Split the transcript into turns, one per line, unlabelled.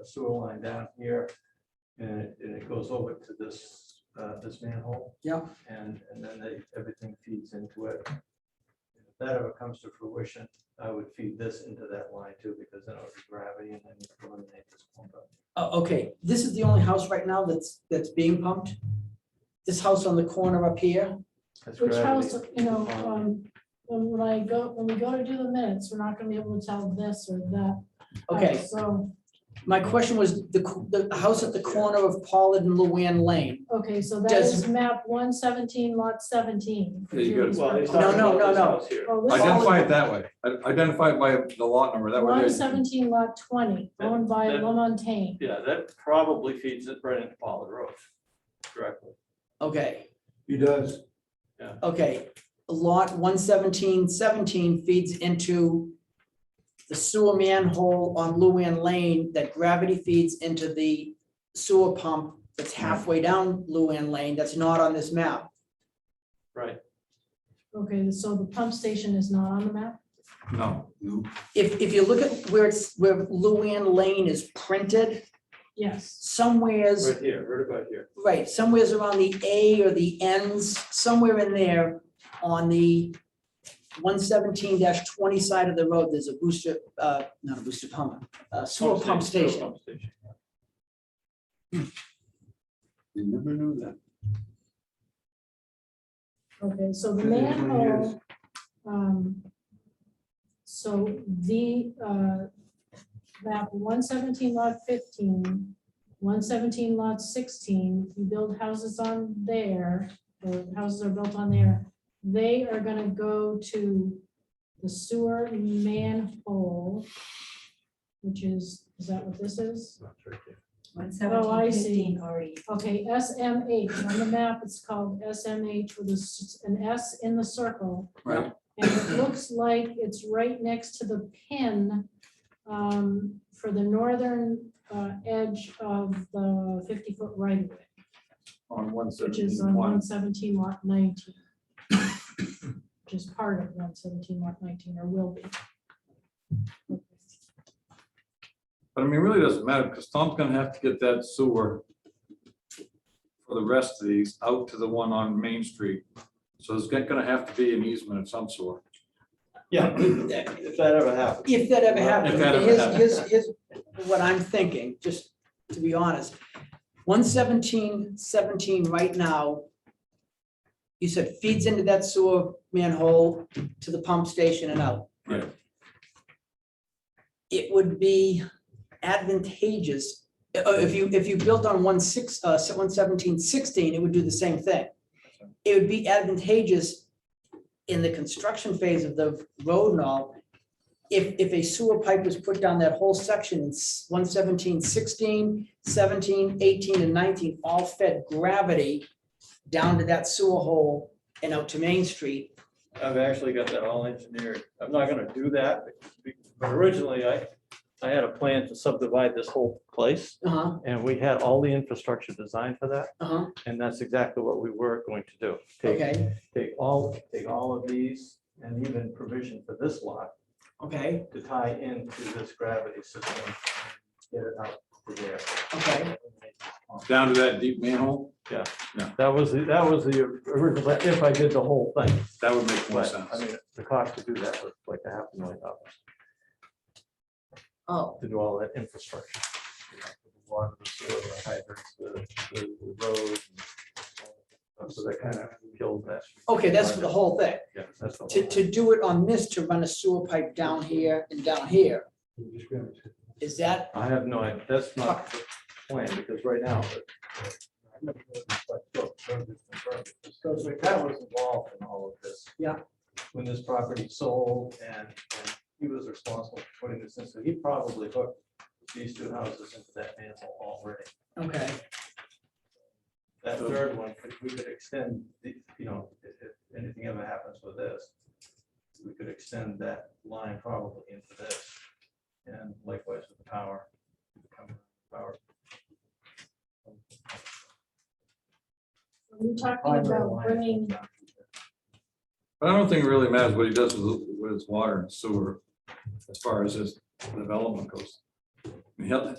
a sewer line down here. And it, and it goes over to this, uh, this manhole.
Yeah.
And, and then they, everything feeds into it. If that ever comes to fruition, I would feed this into that line too, because then it would be gravity and then you'd eliminate this pump up.
Oh, okay, this is the only house right now that's, that's being pumped? This house on the corner up here?
That's
Which
gravity.
house, you know, um, when when I go, when we go to do the minutes, we're not gonna be able to tell this or that. Uh,
Okay,
So,
my question was the, co- the house at the corner of Pollard and Luann Lane.
okay, so that
Does-
is map one seventeen lot seventeen.
There you go.
Well, he's
No,
talking
no,
about
no,
this
no.
house here.
Oh, this
Identify it that way. I- Identify it by the lot number. That way.
One
they-
seventeen lot twenty,
That-
owned by
that-
Lamontaine.
Yeah, that probably feeds it right into Pollard Road directly.
Okay,
He does.
okay, lot one seventeen seventeen feeds into the sewer manhole on Luann Lane that gravity feeds into the sewer pump that's halfway down Luann Lane, that's not on this map.
Right.
Okay, so the pump station is not on the map?
No. no.
If, if you look at where it's, where Luann Lane is printed,
Yes.
somewheres
Right here, right about here.
Right, somewhere's around the A or the ends, somewhere in there on the one seventeen twenty side of the road, there's a booster, uh, not a booster pump, a sewer pump
sewer
station.
pump station.
You never knew that.
Okay, so the
Yeah, it's been
manhole. um, So the uh, map one seventeen lot 15, 117 lot sixteen, you build houses on there, the houses are built on there. They are gonna go to the sewer manhole. Which is, is that what this is?
One
Oh, I
seventeen
see.
fifteen already.
Okay, SMH, on the map, it's called SMH with a s- an S in the circle.
Right.
And it looks like it's right next to the pin um, for the northern uh, edge of the fifty-foot right of way,
On one
which is
seventeen
on
one.
one seventeen lot nineteen. Which is part of one seventeen lot nineteen, or will be.
But I mean, it really doesn't matter because Tom's gonna have to get that sewer for the rest of these out to the one on Main Street. So there's gonna gonna have to be an easement of some sort.
Yeah, if that ever happens.
If that ever
If
happened,
that ever
here's,
happened.
here's, here's what I'm thinking, just to be honest. One seventeen seventeen right now, you said feeds into that sewer manhole to the pump station and out.
Right.
It would be advantageous, uh, if you, if you built on one six, uh, one seventeen sixteen, it would do the same thing. It would be advantageous in the construction phase of the road and all, if, if a sewer pipe was put down that whole section, it's 117, 16, 17, 18, and nineteen, all fed gravity down to that sewer hole and out to Main Street.
I've actually got that all engineered. I'm not gonna do that, but originally I, I had a plan to subdivide this whole place.
Uh-huh,
And we had all the infrastructure designed for that,
uh-huh,
and that's exactly what we were going to do. Take-
okay,
Take all, take all of these and even provision for this lot
okay,
to tie into this gravity system. Get it out to there.
okay.
Down to that deep manhole,
That was, the that was the original, but if I did the whole thing.
that would make more
But,
sense.
I mean, the cost to do that was like a half a million dollars
Oh,
to do all that infrastructure. you know, the Water, the sewer, the hydrants, the, the the road. and So that kind of killed that.
okay, that's for the whole thing.
Yeah, that's the whole
To, to do it on this, to run a sewer pipe down here and down here, is that,
I have no, idea. that's not the plan, because right now. Because that was involved in all of this.
Yeah.
When this property sold and, and he was responsible for putting this in, so he probably hooked these two houses into that manhole already.
okay,
That third one, if we could extend, the you know, if, if anything ever happens with this, we could extend that line probably into this. And likewise with the power. become power.
We're talking about bringing
But I don't think it really matters what he does with, with his water and sewer as far as his development goes. I mean, he'll-